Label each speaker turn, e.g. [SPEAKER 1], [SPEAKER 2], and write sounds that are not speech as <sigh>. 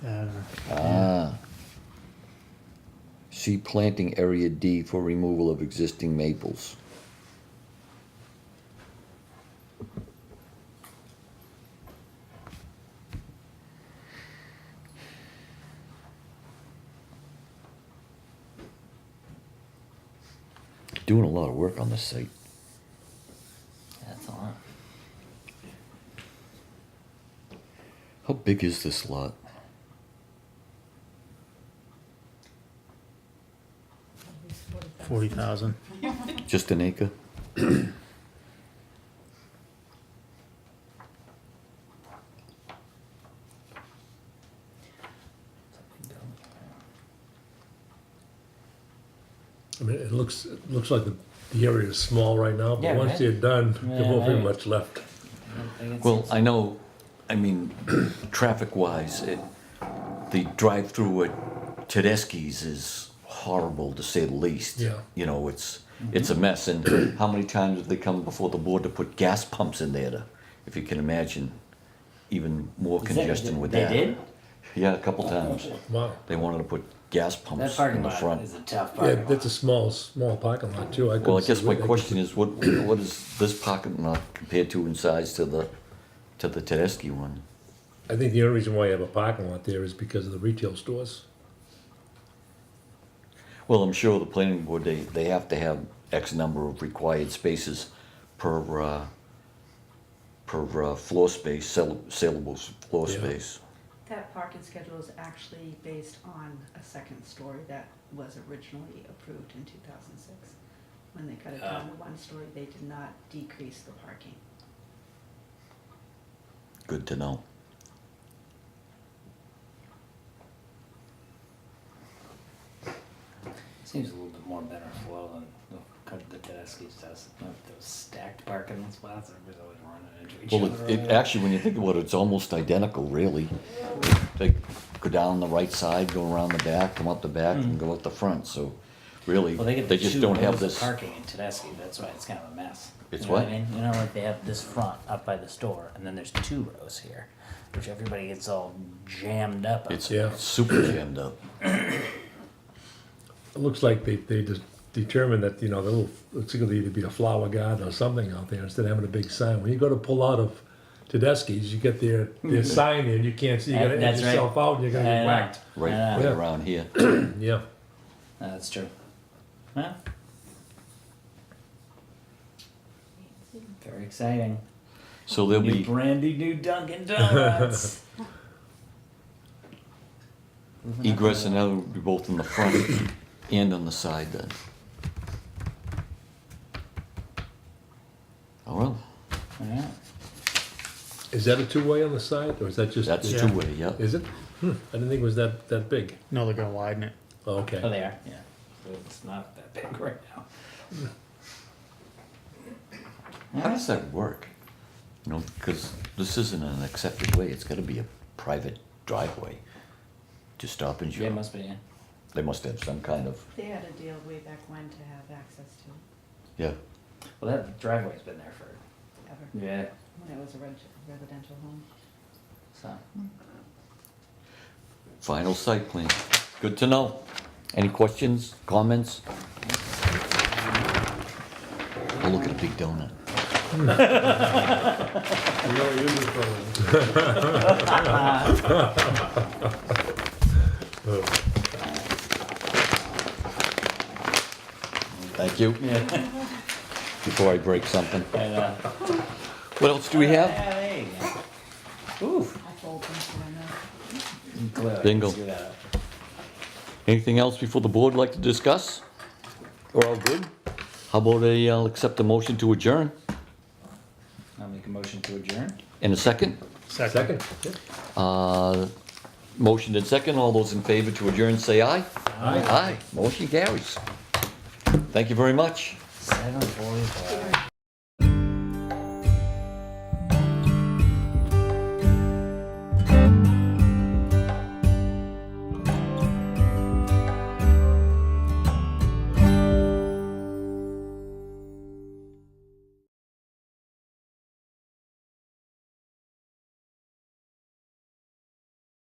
[SPEAKER 1] Uh,
[SPEAKER 2] Ah. See planting area D for removal of existing maples. Doing a lot of work on this site.
[SPEAKER 3] That's a lot.
[SPEAKER 2] How big is this lot?
[SPEAKER 1] Forty thousand.
[SPEAKER 2] Just an acre?
[SPEAKER 4] I mean, it looks, it looks like the, the area is small right now,
[SPEAKER 3] Yeah,
[SPEAKER 4] but once
[SPEAKER 3] right.
[SPEAKER 4] they're done, there
[SPEAKER 3] Yeah,
[SPEAKER 4] won't be
[SPEAKER 3] right.
[SPEAKER 4] much left.
[SPEAKER 2] Well, I know, I mean, <clears throat> traffic-wise, it, the drive-through at Tedeschi's is horrible, to say the least.
[SPEAKER 4] Yeah.
[SPEAKER 2] You know, it's, it's a mess, and <clears throat> how many times have they come before the board to put gas pumps in there to, if you can imagine, even more congestion with that.
[SPEAKER 3] They did?
[SPEAKER 2] Yeah, a couple times.
[SPEAKER 4] Wow.
[SPEAKER 2] They wanted to put gas
[SPEAKER 3] That
[SPEAKER 2] pumps
[SPEAKER 3] parking
[SPEAKER 2] in the
[SPEAKER 3] lot
[SPEAKER 2] front.
[SPEAKER 3] is a tough
[SPEAKER 4] Yeah,
[SPEAKER 3] parking lot.
[SPEAKER 4] that's a small, small parking lot too.
[SPEAKER 2] Well, I
[SPEAKER 4] couldn't
[SPEAKER 2] guess
[SPEAKER 4] see
[SPEAKER 2] my
[SPEAKER 4] what they-
[SPEAKER 2] question is, what, what is this parking lot compared to in size to the, to the Tedeschi one?
[SPEAKER 4] I think the only reason why you have a parking lot there is because of the retail stores.
[SPEAKER 2] Well, I'm sure the planning board, they, they have to have X number of required spaces per, uh, per uh, floor space, sell- saleable s- floor
[SPEAKER 4] Yeah.
[SPEAKER 2] space.
[SPEAKER 5] That parking schedule is actually based on a second story that was originally approved in two thousand six. When they cut it down to one story, they did not decrease the parking.
[SPEAKER 2] Good to know.
[SPEAKER 3] Seems a little bit more better flow than the, cut- the Tedeschi's does. Like Those stacked parking spots, everybody's always running into each
[SPEAKER 2] Well,
[SPEAKER 3] other.
[SPEAKER 2] it, it,
[SPEAKER 3] over there.
[SPEAKER 2] actually, when you think about it, it's almost identical, really. They go down the right side, go around the back, come up the back,
[SPEAKER 4] Hmm.
[SPEAKER 2] and go out the front, so really,
[SPEAKER 3] Well, they get
[SPEAKER 2] they just
[SPEAKER 3] two
[SPEAKER 2] don't have
[SPEAKER 3] rows of
[SPEAKER 2] this.
[SPEAKER 3] Parking in Tedeschi, that's why it's kind of a mess.
[SPEAKER 2] It's
[SPEAKER 3] You know
[SPEAKER 2] what?
[SPEAKER 3] I mean? You know, like they have this front up by the store and then there's two rows here, which everybody gets all jammed up. up
[SPEAKER 2] It's
[SPEAKER 4] Yeah.
[SPEAKER 2] super jammed up.
[SPEAKER 4] It looks like they, they just determined that, you know, the little, it's gonna either be a flower garden or something out there instead of having a big sign. When you go to pull out of Tedeschi's, you get their, their sign in, you can't see, you gotta
[SPEAKER 3] Mm-hmm. That's
[SPEAKER 4] edge
[SPEAKER 3] right.
[SPEAKER 4] yourself out and you're gonna
[SPEAKER 3] I
[SPEAKER 4] get
[SPEAKER 3] know.
[SPEAKER 4] whacked.
[SPEAKER 2] right,
[SPEAKER 3] Yeah.
[SPEAKER 2] right
[SPEAKER 4] Yeah.
[SPEAKER 2] around here.
[SPEAKER 4] Yeah.
[SPEAKER 3] No, That's true. Well. Very exciting.
[SPEAKER 2] So there'll
[SPEAKER 3] New
[SPEAKER 2] be,
[SPEAKER 3] brandy new Dunkin' <laughs> Donuts.
[SPEAKER 2] egress and out will be both in the front and on the side then. Oh well,
[SPEAKER 3] Alright.
[SPEAKER 4] Is that a two-way on the side or is that just?
[SPEAKER 2] that's
[SPEAKER 1] Yeah.
[SPEAKER 2] two-way, yeah.
[SPEAKER 4] Is it? Hmm, I didn't think it was that, that big.
[SPEAKER 1] No, they're gonna widen it.
[SPEAKER 4] Oh, Okay.
[SPEAKER 3] Oh, they are. Yeah. So it's not that big right now.
[SPEAKER 2] How does that work? You know, because this isn't an accepted way, it's gotta be a private driveway to stop and
[SPEAKER 3] Yeah, it
[SPEAKER 2] show.
[SPEAKER 3] must be. Yeah.
[SPEAKER 2] They must have some kind of,
[SPEAKER 5] They had a deal way back when to have access to
[SPEAKER 2] yeah,
[SPEAKER 3] Well, that driveway's been there for
[SPEAKER 5] it ever,
[SPEAKER 3] yeah.
[SPEAKER 5] when it was a reg- residential home.
[SPEAKER 3] So
[SPEAKER 2] final site plan. Good to know. Any questions, comments? Oh, look at a big donut. Thank you. Before I break something.
[SPEAKER 3] and, uh,
[SPEAKER 2] What else do we have?
[SPEAKER 3] yeah, there you go. Ooh,
[SPEAKER 5] I told them, so I know.
[SPEAKER 3] glue.
[SPEAKER 2] Bingo.
[SPEAKER 3] Screw that up.
[SPEAKER 2] Anything else before the board like to discuss? We're all good? How about a, I'll accept a motion to adjourn?
[SPEAKER 3] I'll make a motion to adjourn.
[SPEAKER 2] In a second?
[SPEAKER 4] Second. yeah.
[SPEAKER 2] Uh, Motion and second, all those in favor to adjourn, say aye. Aye. Aye, motion carries. Thank you very much.
[SPEAKER 3] Seven forty-five.